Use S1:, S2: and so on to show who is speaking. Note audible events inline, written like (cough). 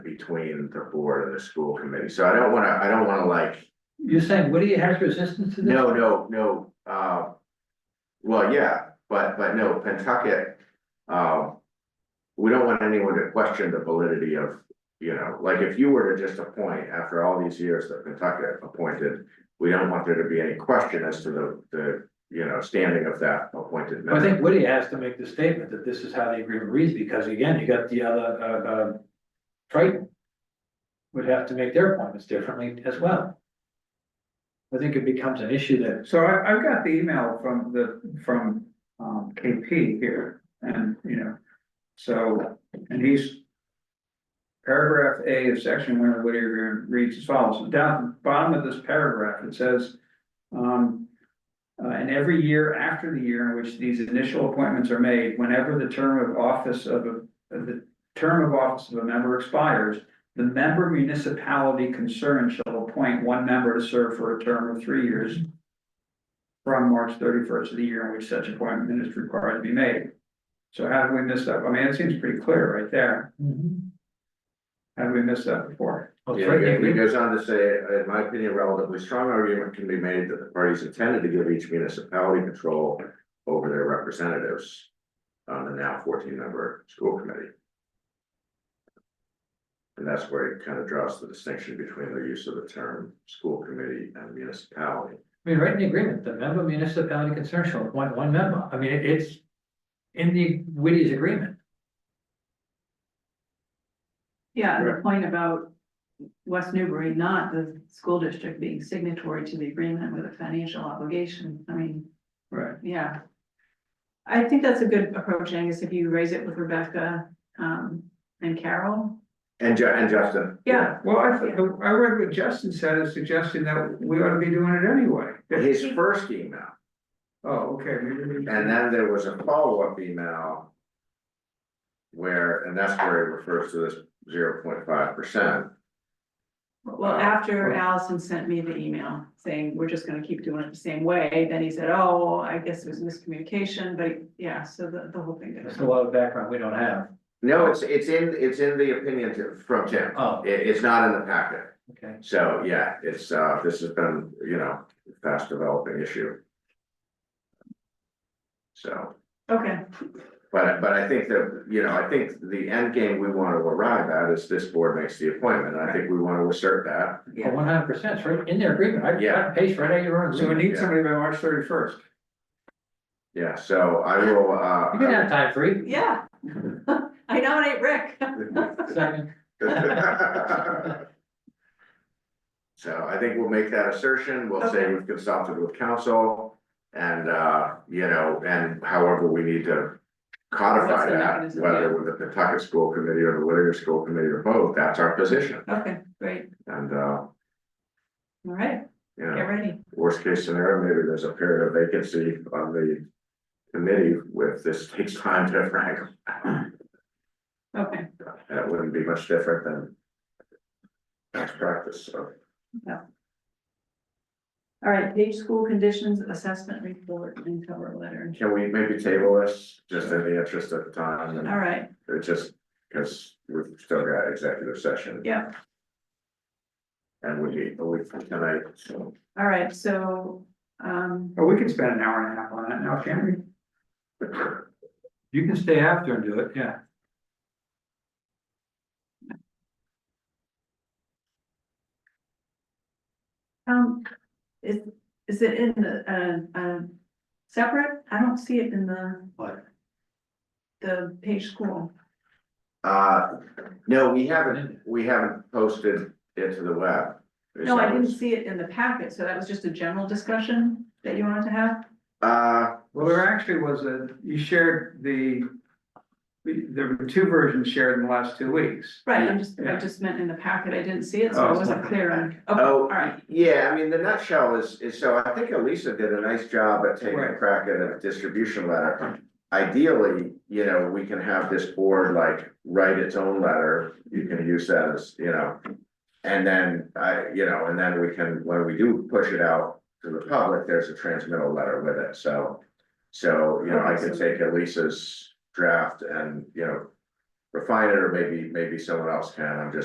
S1: between the board and the school committee, so I don't wanna, I don't wanna like,
S2: You're saying Woody has resistance to this?
S1: no, no, no, uh. Well, yeah, but, but no, Pentucket, um. We don't want anyone to question the validity of, you know, like if you were to just appoint after all these years that Pentucket appointed. We don't want there to be any question as to the, the, you know, standing of that appointed
S2: I
S1: member.
S2: think Woody has to make the statement that this is how the agreement reads, because again, you got the other, uh, uh, Triton. Would have to make their appointments differently as well. I think it becomes an issue that,
S3: So I, I've got the email from the, from, um, KP here, and, you know, so, and he's. Paragraph A of section one of Whittier Agreement reads as follows, down at the bottom of this paragraph, it says, um. Uh, and every year after the year in which these initial appointments are made, whenever the term of office of, a of the term of office of a member expires. The member municipality concerned shall appoint one member to serve for a term of three years from March thirty-first of the year in which such appointment is required to be made. So how did we miss that? I mean, it seems pretty clear right there. How did we miss that before?
S2: oh,
S1: Yeah,
S2: Triton,
S1: he
S2: agreement-
S1: goes on to say, in my opinion, relatively strong argument can be made that the parties intended to give each municipality control over their representatives. On the now fourteen member school committee. And that's where it kind of draws the distinction between the use of the term school committee and municipality.
S2: I mean, right in the agreement, the member municipality concern shall appoint one member, I mean, it- it's. In the Woody's agreement,
S4: Yeah, and the point about West Newbury, not the school district being signatory to the agreement with a financial obligation, I mean,
S3: Right.
S4: yeah. I think that's a good approach, Angus, if you raise it with Rebecca, um, and Carol,
S1: And Ju- and Justin.
S4: yeah,
S3: Well, I, th- I read what Justin said as suggesting that we ought to be doing it anyway.
S1: His first email,
S3: Oh, okay. maybe we-
S1: and then there was a follow-up email. Where, and that's where he refers to this zero point five percent.
S4: well, after Allison sent me the email saying, we're just gonna keep doing it the same way, then he said, oh, I guess it was miscommunication, but yeah, so the, the whole thing.
S2: there's a lot of background we don't have,
S1: No, it's, it's in, it's in the opinion to- from Tim.
S2: oh,
S1: It, it's not in the packet.
S2: okay,
S1: So, yeah, it's, uh, this has been, you know, fast developing issue. So,
S4: Okay,
S1: but, but I think that, you know, I think the end game we want to arrive at is this board makes the appointment. I think we want to assert that.
S3: Yeah.
S2: one hundred percent, it's right in their agreement, I, I
S1: Yeah.
S2: paste right out of your own
S3: So we
S2: agreement.
S3: need somebody by March thirty-first.
S1: Yeah, so I will,
S2: You can
S1: uh.
S2: have time free,
S4: yeah, (laughs) I nominate Rick. (laughs)
S2: second,
S1: So I think we'll make that assertion, we'll say we've consulted with council. And, uh, you know, and however we need to
S4: What's
S1: codify
S4: the
S1: that,
S4: mechanism,
S1: whether with the Pawtucket School Committee or the Whittier School Committee or both, that's our position.
S4: Okay, great,
S1: And, uh,
S4: all right,
S1: you
S4: get
S1: know,
S4: ready.
S1: worst case scenario, maybe there's a period of vacancy on the committee with this takes time to rank.
S4: Okay,
S1: That wouldn't be much different than best practice, so.
S4: all right, page school conditions assessment report and cover letter.
S1: Can we maybe table this, just in the interest of time,
S4: All
S1: and
S4: right,
S1: it's just, because we've still got executive session.
S4: Yeah.
S1: And we need a week from tonight, so,
S4: all right, so, um,
S3: Oh, we can spend an hour and a half on that now, can't we?
S2: you can stay after and do it, yeah.
S4: um, is, is it in the, uh, uh, separate? I don't see it in the,
S2: What?
S4: the page school.
S1: uh, no, we haven't, we haven't posted it to the web.
S4: No, I didn't see it in the packet, so that was just a general discussion that you wanted to have?
S1: Uh,
S3: Well, there actually was a, you shared the, there were two versions shared in the last two weeks.
S4: Right, I'm just, I
S3: Yeah.
S4: just meant in the packet, I didn't see it, so I
S3: Oh.
S4: wasn't clear on, okay, all
S1: oh,
S4: right,
S1: yeah, I mean, the nutshell is, is, so I think Elisa did a nice job at taking a
S3: Right.
S1: crack at a distribution letter. Ideally, you know, we can have this board like write its own letter, you can use that as, you know. And then I, you know, and then we can, when we do push it out to the public, there's a transmittal letter with it, so. So, you know, I could take Elisa's draft and, you know, refine it, or maybe, maybe someone else can, I'm just